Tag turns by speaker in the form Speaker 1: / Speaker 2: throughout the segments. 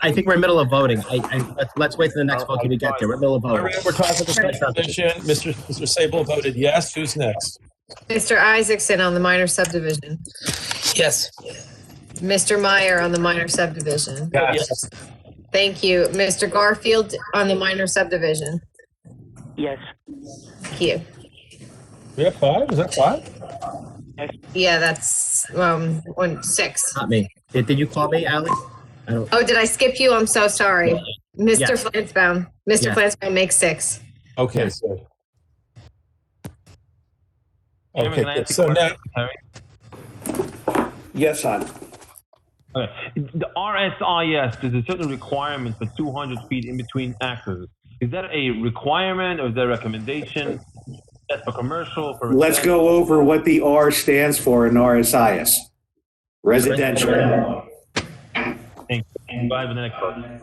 Speaker 1: I think we're in the middle of voting. I, I, let's, let's wait till the next vote till we get there. We're in the middle of
Speaker 2: All
Speaker 1: voting.
Speaker 2: right, we're talking about subdivision. Mr. Mr. Sable voted yes. Who's next?
Speaker 3: Mr. Isaacson on the minor subdivision.
Speaker 4: Yes.
Speaker 3: Mr. Meyer on the minor subdivision.
Speaker 2: Yes.
Speaker 3: Thank you. Mr. Garfield on the minor subdivision.
Speaker 5: Yes.
Speaker 3: Thank you.
Speaker 2: We have five? Is that five?
Speaker 3: Yeah, that's um one six.
Speaker 1: Not me. Did, did you call me, Ally? I don't,
Speaker 3: Oh, did I skip you? I'm so sorry. Mr.
Speaker 1: Yes.
Speaker 3: Flansbaum. Mr.
Speaker 1: Yes.
Speaker 3: Flansbaum makes six.
Speaker 2: Okay, so.
Speaker 4: Chairman, can I
Speaker 2: Okay,
Speaker 4: ask a
Speaker 2: so now,
Speaker 4: question? Sorry.
Speaker 6: Yes, hon.
Speaker 4: Okay. Uh, The RSIS, there's a certain requirement for 200 feet in between axes. Is that a requirement or is that a recommendation? That's for commercial, for.
Speaker 6: Let's go over what the R stands for in RSIS. Residential.
Speaker 4: Thank you. Go ahead with the next one.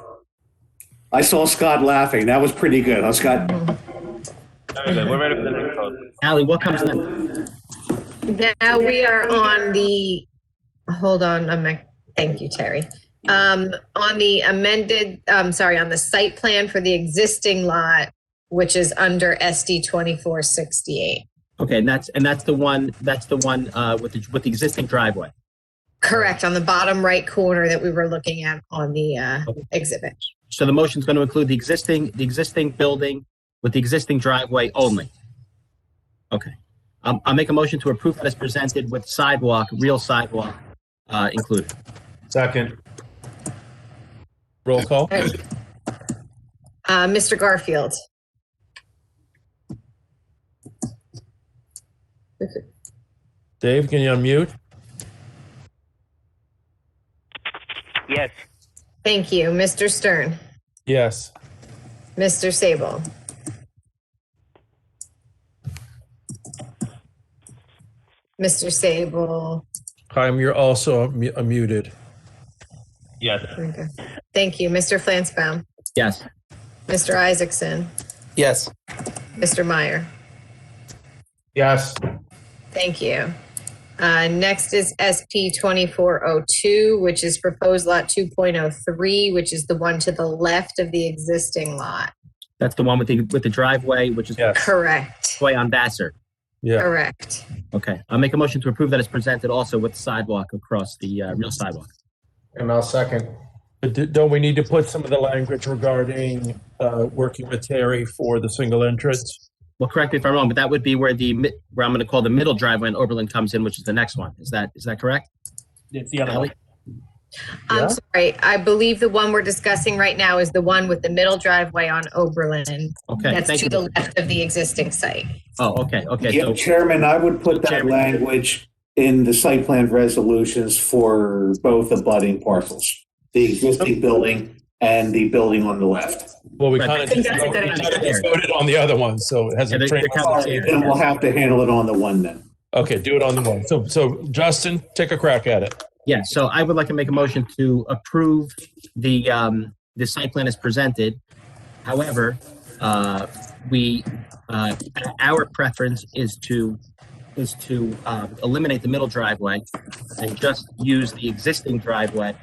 Speaker 6: I saw Scott laughing. That was pretty good, huh, Scott?
Speaker 4: Very good. We're ready for the next vote.
Speaker 1: Ally, what comes next?
Speaker 3: Now we are on the, hold on, I'm, not- thank you, Terry. Um, on the amended, um, sorry, on the site plan for the existing lot, which is under SD twenty-four sixty-eight.
Speaker 1: Okay, and that's, and that's the one, that's the one, uh, with the, with the existing driveway.
Speaker 3: Correct, on the bottom right corner that we were looking at on the uh, exhibit.
Speaker 1: So the motion's going to include the existing, the existing building with the existing driveway only. Okay. Um, I'll make a motion to approve as presented with sidewalk, real sidewalk, uh, included.
Speaker 2: second. Roll call?
Speaker 3: Uh, Mr. Garfield.
Speaker 2: Dave, can you unmute?
Speaker 5: Yes.
Speaker 3: Thank you. Mr. Stern.
Speaker 2: Yes.
Speaker 3: Mr. Sable. Mr. Sable.
Speaker 2: Chaim, you're also mu- muted.
Speaker 4: Yes.
Speaker 3: Okay. Thank you. Mr. Flansbaum.
Speaker 1: Yes.
Speaker 3: Mr. Isaacson.
Speaker 4: Yes.
Speaker 3: Mr. Meyer.
Speaker 2: Yes.
Speaker 3: Thank you. Uh, Next is SP 2402, which is proposed lot 2.03, which is the one to the left of the existing lot.
Speaker 1: That's the one with the, with the driveway, which is
Speaker 2: Yes.
Speaker 3: Correct,
Speaker 1: way on Vassar.
Speaker 2: Yeah.
Speaker 3: correct.
Speaker 1: Okay, I'll make a motion to approve that as presented also with sidewalk across the, uh, real sidewalk.
Speaker 7: And I'll second.
Speaker 2: But d- don't we need to put some of the language regarding uh, working with Terry for the single entrance?
Speaker 1: Well, correct me if I'm wrong, but that would be where the, mi- where I'm going to call the middle driveway and Oberlin comes in, which is the next one. Is that, is that correct?
Speaker 4: It's the other
Speaker 1: Ally?
Speaker 4: one.
Speaker 2: Yeah.
Speaker 3: I'm sorry, I believe the one we're discussing right now is the one with the middle driveway on Oberlin.
Speaker 1: Okay,
Speaker 3: That's
Speaker 1: thank
Speaker 3: to
Speaker 1: you.
Speaker 3: the left of the existing site.
Speaker 1: Oh, okay, okay,
Speaker 6: Yeah,
Speaker 1: so,
Speaker 6: Chairman, I would put that
Speaker 1: Chairman.
Speaker 6: language in the site plan resolutions for both abutting parcels. The existing building and the building on the left.
Speaker 2: Well, we
Speaker 1: Right.
Speaker 2: kind
Speaker 1: I
Speaker 2: of
Speaker 1: think
Speaker 2: just
Speaker 1: that's a good
Speaker 2: we kinda
Speaker 1: idea.
Speaker 2: just voted on the other one, so it
Speaker 1: Yeah,
Speaker 2: hasn't.
Speaker 1: they're-
Speaker 2: trained
Speaker 1: they're
Speaker 2: us.
Speaker 1: complicated.
Speaker 6: Then we'll have to handle it on the one then.
Speaker 2: Okay, do it on the one. So, so Justin, take a crack at it.
Speaker 1: yeah, so I would like to make a motion to approve the, um, the site plan as presented. However, uh, we, uh, our preference is to, is to, um, eliminate the middle driveway and just use the existing driveway,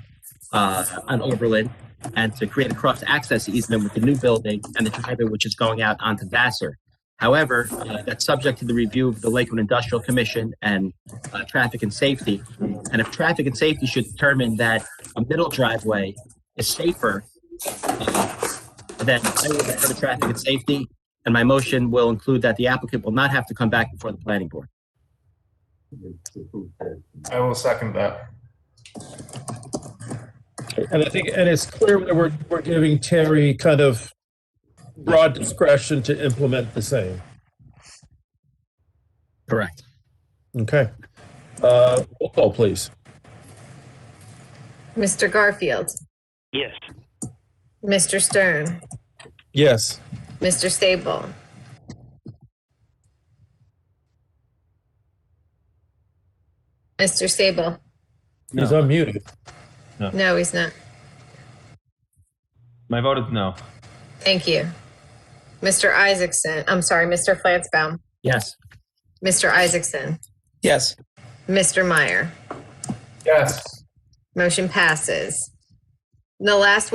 Speaker 1: uh, on Oberlin and to create a cross-access easement with the new building and the driveway which is going out onto Vassar. However, uh, that's subject to the review of the Lakewood Industrial Commission and uh, Traffic and Safety. And if Traffic and Safety should determine that a middle driveway is safer, uh, then I will refer to Traffic and Safety, and my motion will include that the applicant will not have to come back before the planning board.
Speaker 7: I will second that.
Speaker 2: And I think, and it's clear that we're, we're giving Terry kind of broad discretion to implement the same.
Speaker 1: Correct.
Speaker 2: Okay. Uh, roll call, please.
Speaker 3: Mr. Garfield,
Speaker 5: Yes.
Speaker 3: Mr. Stern,
Speaker 2: Yes.
Speaker 3: Mr. Sable, Mr. Sable.
Speaker 2: He's unmuted.
Speaker 3: No, he's not.
Speaker 4: My vote is no.
Speaker 3: Thank you. Mr. Isaacson, I'm sorry, Mr. Flansbaum,
Speaker 1: Yes.
Speaker 3: Mr. Isaacson,
Speaker 4: Yes.
Speaker 3: Mr. Meyer.
Speaker 7: Yes.
Speaker 3: Motion passes. the last